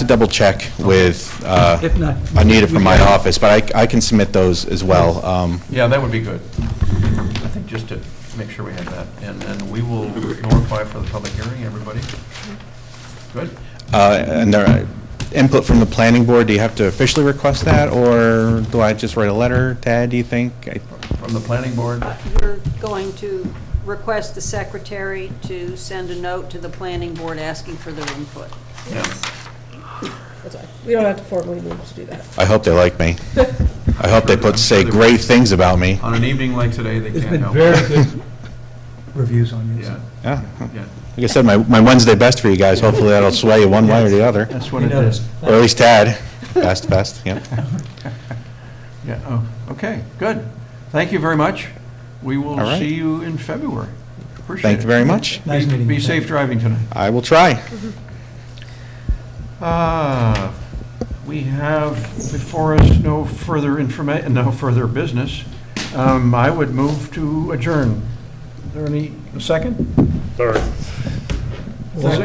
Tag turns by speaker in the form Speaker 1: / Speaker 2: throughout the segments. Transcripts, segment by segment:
Speaker 1: to double check with uh,
Speaker 2: If not-
Speaker 1: Anita from my office, but I I can submit those as well. Um,
Speaker 3: Yeah, that would be good. I think just to make sure we have that, and then we will notify for the public hearing, everybody. Good?
Speaker 1: uh, And there, are- input from the planning board, do you have to officially request that, or do I just write a letter, Tad, do you think? I-
Speaker 3: From the planning board,
Speaker 4: We're going to request the secretary to send a note to the planning board asking for their input.
Speaker 3: yeah.
Speaker 5: That's why, we don't have to formally move to do that.
Speaker 1: I hope they like me. I hope they put, say great things about me.
Speaker 3: On an evening like today, they
Speaker 2: There's
Speaker 3: can't
Speaker 2: been
Speaker 3: help.
Speaker 2: very
Speaker 3: it.
Speaker 2: good reviews on this.
Speaker 3: Yeah,
Speaker 1: Yeah.
Speaker 3: yeah.
Speaker 1: Like I said, my my Wednesday best for you guys, hopefully that'll sway you one way or the other.
Speaker 3: That's
Speaker 2: We noticed.
Speaker 1: Or at least Tad, best, best, yeah.
Speaker 3: Yeah, oh, okay, good. Thank you very much. We will
Speaker 1: All right.
Speaker 3: see you in February. Appreciate it.
Speaker 1: Thank you very much.
Speaker 2: Nice
Speaker 3: Be-
Speaker 2: meeting
Speaker 3: Be
Speaker 2: you.
Speaker 3: safe driving tonight.
Speaker 1: I will try.
Speaker 3: Ah, We have before us no further information, no further business. Um, I would move to adjourn. Is there any, a second? Is there-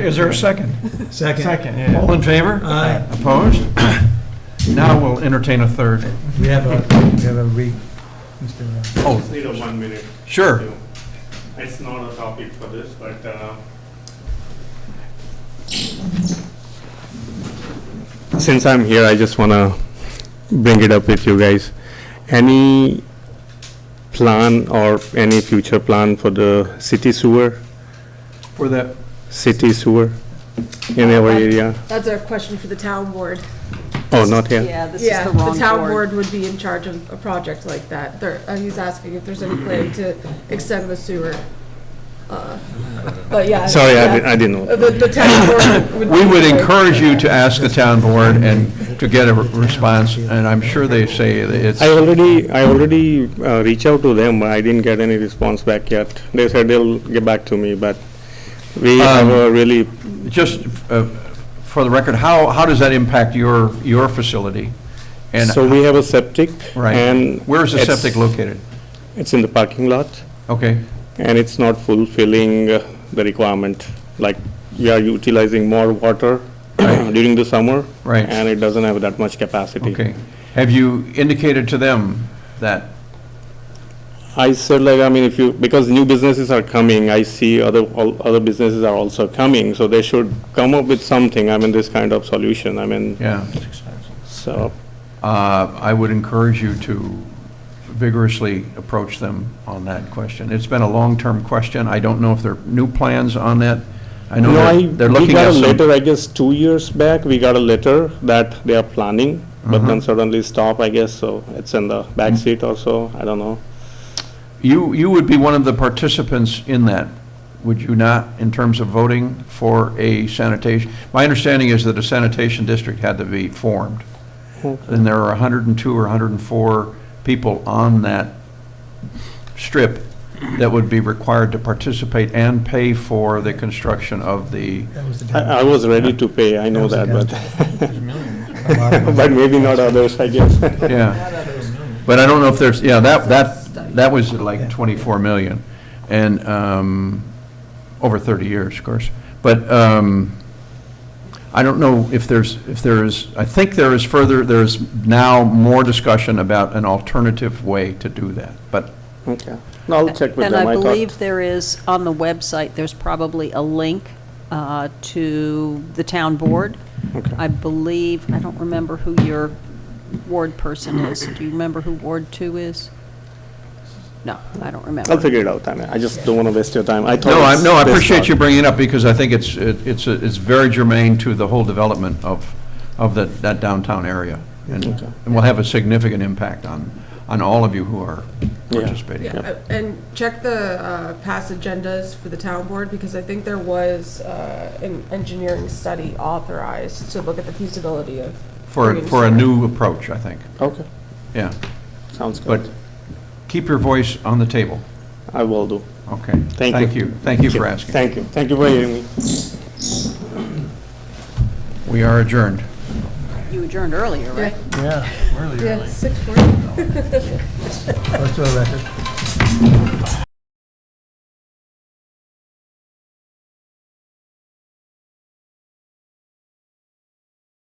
Speaker 3: Is there a second?
Speaker 2: Second. Second,
Speaker 3: All in favor?
Speaker 2: Aye.
Speaker 3: Opposed? Now we'll entertain a third.
Speaker 2: We have a, we have a re, uh, Mr.
Speaker 3: Oh,
Speaker 6: Need a one minute.
Speaker 3: sure.
Speaker 6: too. It's not a topic for this, but uh, since I'm here, I just want to bring it up with you guys. Any plan or any future plan for the city sewer,
Speaker 3: For the,
Speaker 6: city sewer in our area?
Speaker 5: That's a question for the town board.
Speaker 6: Oh, not here?
Speaker 4: Yeah, this is the wrong
Speaker 5: town
Speaker 4: board.
Speaker 5: board would be in charge of a project like that. There, uh, he's asking if there's any plan to extend the sewer. Uh, But yeah.
Speaker 6: Sorry, I
Speaker 5: yeah.
Speaker 6: di- I didn't know.
Speaker 5: The, the town board would.
Speaker 3: we would
Speaker 5: be-
Speaker 3: encourage you to ask the town board and to get a response, and I'm sure they say that it's,
Speaker 6: I already, I already uh, reached out to them, but I didn't get any response back yet. They said they'll get back to me, but we
Speaker 3: Um,
Speaker 6: have a really
Speaker 3: just uh, for the record, how, how does that impact your, your facility? And
Speaker 6: So we have a septic.
Speaker 3: Right.
Speaker 6: and
Speaker 3: Where's the
Speaker 6: it's-
Speaker 3: septic located?
Speaker 6: It's in the parking lot,
Speaker 3: Okay,
Speaker 6: and it's not fulfilling uh, the requirement. Like, we are utilizing more water during the summer.
Speaker 3: Right.
Speaker 6: And it doesn't have that much capacity.
Speaker 3: okay. Have you indicated to them that,
Speaker 6: I said, like, I mean, if you, because new businesses are coming, I see other, all other businesses are also coming, so they should come up with something, I mean, this kind of solution, I mean,
Speaker 3: yeah,
Speaker 6: so,
Speaker 3: uh, I would encourage you to vigorously approach them on that question. It's been a long-term question. I don't know if there are new plans on that. I know
Speaker 6: No, I,
Speaker 3: they're- they're
Speaker 6: we
Speaker 3: looking
Speaker 6: got
Speaker 3: at
Speaker 6: a letter,
Speaker 3: some.
Speaker 6: I guess, two years back, we got a letter that they are planning, but
Speaker 3: Uh-huh.
Speaker 6: then suddenly stop, I guess, so it's in the
Speaker 3: Hmm.
Speaker 6: back seat or so, I don't know.
Speaker 3: You, you would be one of the participants in that, would you not, in terms of voting for a sanitation? My understanding is that a sanitation district had to be formed. And there are 102 or 104 people on that strip that would be required to participate and pay for the construction of the,
Speaker 2: That was the
Speaker 6: I, I
Speaker 2: down-
Speaker 6: was ready to pay, I know
Speaker 2: That
Speaker 6: that,
Speaker 2: was
Speaker 6: but,
Speaker 2: a a lot of-
Speaker 6: but maybe not others, I guess.
Speaker 3: yeah. But I don't know if there's, yeah, that, that, that was
Speaker 2: Yeah.
Speaker 3: like 24 million, and, um, over 30 years, of course. But, um, I don't know if there's, if there is, I think there is further, there is now more discussion about an alternative way to do that, but
Speaker 6: Okay, no, I'll check with
Speaker 4: And
Speaker 6: them,
Speaker 4: I
Speaker 6: I
Speaker 4: believe
Speaker 6: thought.
Speaker 4: there is, on the website, there's probably a link uh, to the town board. I believe, I don't remember who your ward person is. Do you remember who Ward Two is? No, I don't remember.
Speaker 6: I'll figure it out, I mean, I just don't wanna waste your time, I thought.
Speaker 3: No, I,
Speaker 6: it's
Speaker 3: no, I
Speaker 6: this
Speaker 3: appreciate
Speaker 6: thought.
Speaker 3: you bringing it up, because I think it's, it- it's, a- it's very germane to the whole development of, of that, that downtown area. And,
Speaker 6: Okay.
Speaker 3: and will have a significant impact on, on all of you who are
Speaker 6: Yeah.
Speaker 3: participating.
Speaker 5: Yeah, uh, and check the uh, past agendas for the town board, because I think there was uh, an engineering study authorized to look at the feasibility of.
Speaker 3: For,
Speaker 5: doing
Speaker 3: for a
Speaker 5: sewer.
Speaker 3: new approach, I think,
Speaker 6: Okay,
Speaker 3: yeah.
Speaker 6: sounds
Speaker 3: But
Speaker 6: good,
Speaker 3: keep your voice on the table,
Speaker 6: I will do.
Speaker 3: okay?
Speaker 6: Thank
Speaker 3: Thank
Speaker 6: you.
Speaker 3: you, thank you for asking.
Speaker 6: Thank you, thank you for hearing me.
Speaker 3: We are adjourned.
Speaker 4: You adjourned earlier, right?
Speaker 5: Yeah, six forty.
Speaker 2: Let's do a record.